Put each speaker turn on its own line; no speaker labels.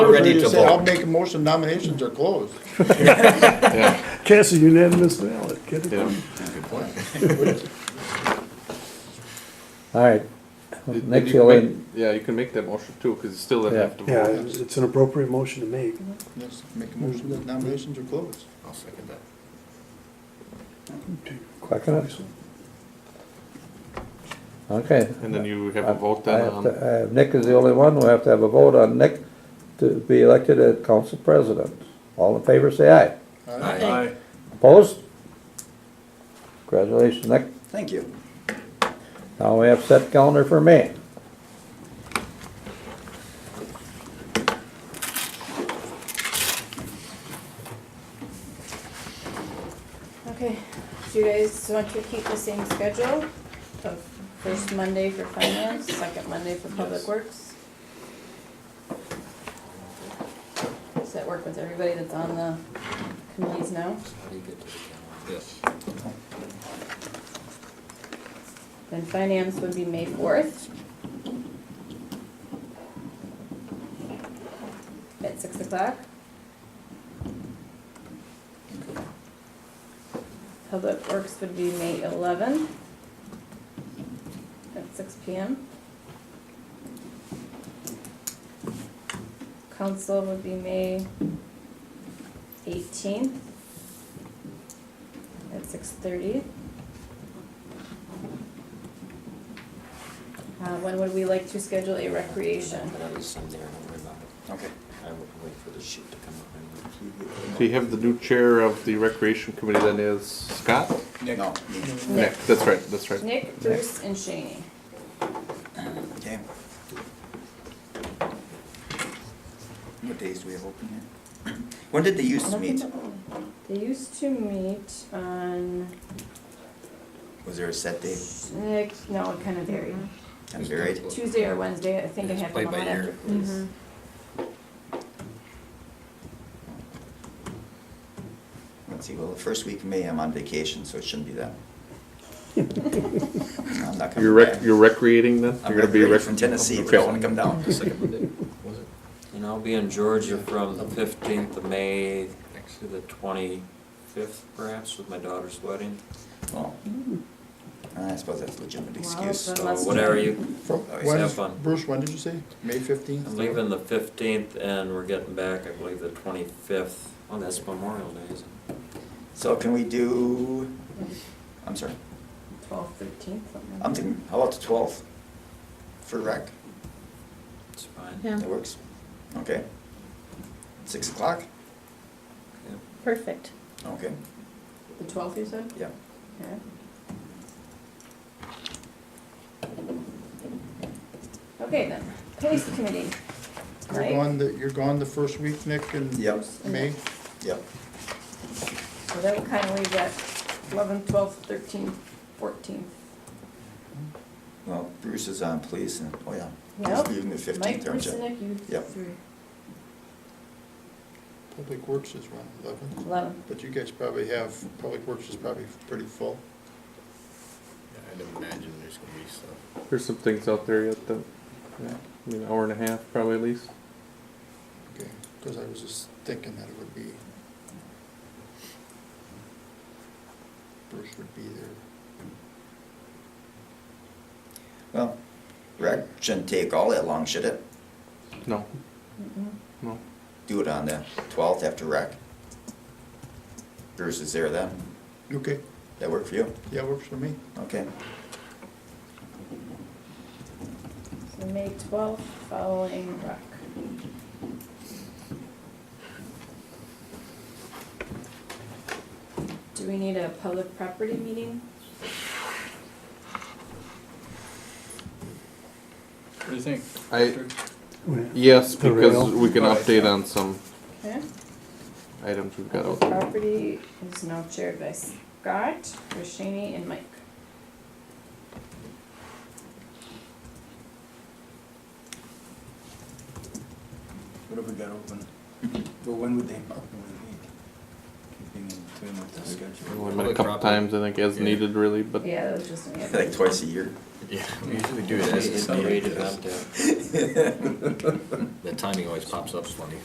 ready to
I'll
vote.
make a motion nominations are closed.
Cast a unanimous ballot, get it done.
Good point.
All right,
You-
next
you
you'll,
make-
en-
Yeah, you can make that motion too, because you still
Yeah.
have to
Yeah,
vote.
it's it's an appropriate motion to make.
Yes, make a motion that nominations are closed.
I'll second that.
Quack it up. okay.
And then you have
I-
a vote
I
then
have
on,
to- I have- Nick is the only one, we have to have a vote on Nick to be elected as council president. All in favor, say aye.
Aye.
Opposed? Congratulations, Nick.
Thank you.
Now we have set calendar for May.
Okay, do you guys want to keep the same schedule of first Monday for finance, second Monday for public works? Does that work with everybody that's on the committees now?
How do you get to the calendar? Yes.
Then finance would be May fourth. At six o'clock. Public Works would be May eleven. At six P M. Council would be May eighteenth. At six thirty. Uh, when would we like to schedule a recreation?
But at least I'm there and I remember. Okay. I will wait for the sheet to come up.
so you have the new chair of the recreation committee then is Scott?
Nick. No.
Nick, that's right, that's right.
Nick, Bruce, and Shaney.
Okay. What days do we have open here? When did they used to meet?
They used to meet on,
Was there a set date?
Nick, no, it kind of varied.
I'm buried.
Tuesday or Wednesday, I think I
It's
had
played
one on
by
after.
ear.
Mhm.
Let's see, well, the first week of May, I'm on vacation, so it shouldn't be that. I'm not
You're
coming
rec,
back.
you're recreating then?
I'm
You're gonna be
recreating
rec-
from Tennessee, but
Okay.
I wanna come down for a second Monday.
And I'll be in Georgia from the fifteenth of May to the twenty-fifth perhaps with my daughter's wedding.
Well, I suppose that's a legitimate
Well,
excuse.
but-
So
Unless-
whatever you,
From,
Oh,
Always
when
have
is-
fun.
Bruce, when did you say? May fifteenth?
I'm leaving the fifteenth and we're getting back, I believe, the twenty-fifth. Oh, that's Memorial Day, isn't it?
So can we do, I'm sorry,
Twelve, thirteen, something like
I'm
that.
thinking, how about the twelfth? For rec,
It's fine.
Yeah.
that works, okay? Six o'clock,
Yeah.
Perfect.
okay,
The twelfth, you said?
yeah.
Yeah. Okay then, police committee.
You're
right?
gone, the- you're gone the first week, Nick, in
Yep.
May?
Yep,
So that would kind of leave that eleven, twelve, thirteen, fourteen.
well, Bruce is on police and, oh yeah,
Yep.
he's leaving the fifteenth, aren't you?
Mike, Bruce, and Nick, you
Yep.
three.
Public Works is around eleven,
Eleven.
but you guys probably have, Public Works is probably pretty full.
There's some things out there yet that, yeah, I mean, hour and a half probably at least.
Okay, because I was just thinking that it would be. Bruce would be there.
Well, rec shouldn't take all that long, should it?
No,
Mm-mm.
no.
Do it on the twelfth after rec. Bruce is there then,
Okay,
that work for you?
yeah, works for me.
Okay,
So May twelfth, following rec. Do we need a public property meeting?
I, yes, because we can update on some
Okay.
items we've got
Public
out there.
property is now chaired by Scott, Rashani, and Mike.
What have we got open? But when would they, when would they meet? Keeping in tune with the schedule.
We met a couple times, I think, as
Yeah.
needed really, but
Yeah, that was just an ad.
like twice a year.
Yeah, we usually do it
It's
as
a
it's
great
needed.
event, yeah.
The timing always pops up funny.